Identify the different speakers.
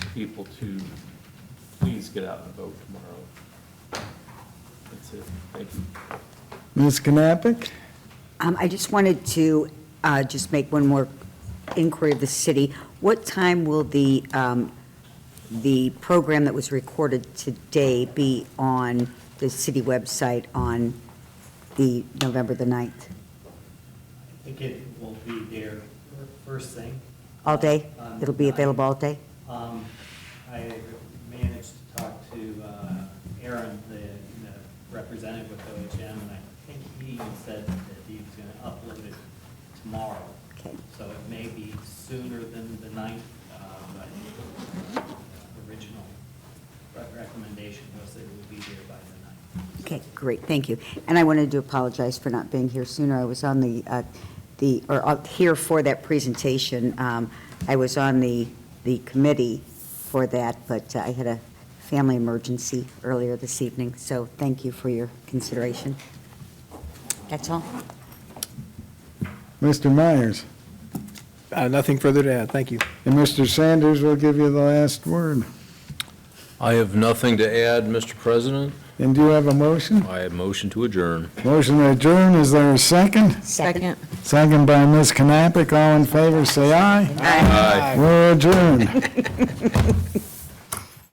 Speaker 1: people to please get out and vote tomorrow. That's it. Thank you.
Speaker 2: Ms. Knappich?
Speaker 3: Um, I just wanted to uh, just make one more inquiry of the city. What time will the, um, the program that was recorded today be on the city website on the November the 9th?
Speaker 4: I think it will be there first thing.
Speaker 3: All day?
Speaker 4: Um,
Speaker 3: It'll be available all day?
Speaker 4: Um, I managed to talk to uh, Aaron, the you know, representative with OHM, and I think he said that he was going to upload it tomorrow.
Speaker 3: Okay.
Speaker 4: So it may be sooner than the ninth, uh, but the original re- recommendation was that it would be there by the ninth.
Speaker 3: Okay, great, thank you. And I wanted to apologize for not being here sooner. I was on the, uh, the, or uh, here for that presentation. Um, I was on the, the committee for that, but uh, I had a family emergency earlier this evening, so thank you for your consideration. That's all.
Speaker 2: Mr. Myers?
Speaker 5: Uh, Nothing further to add, thank you.
Speaker 2: And Mr. Sanders will give you the last word.
Speaker 6: I have nothing to add, Mr. President.
Speaker 2: And do you have a motion?
Speaker 6: I motion to adjourn.
Speaker 2: Motion to adjourn, is there a second?
Speaker 3: Second.
Speaker 2: Second by Ms. Knappich, all in favor, say aye.
Speaker 3: Aye.
Speaker 2: We're adjourned.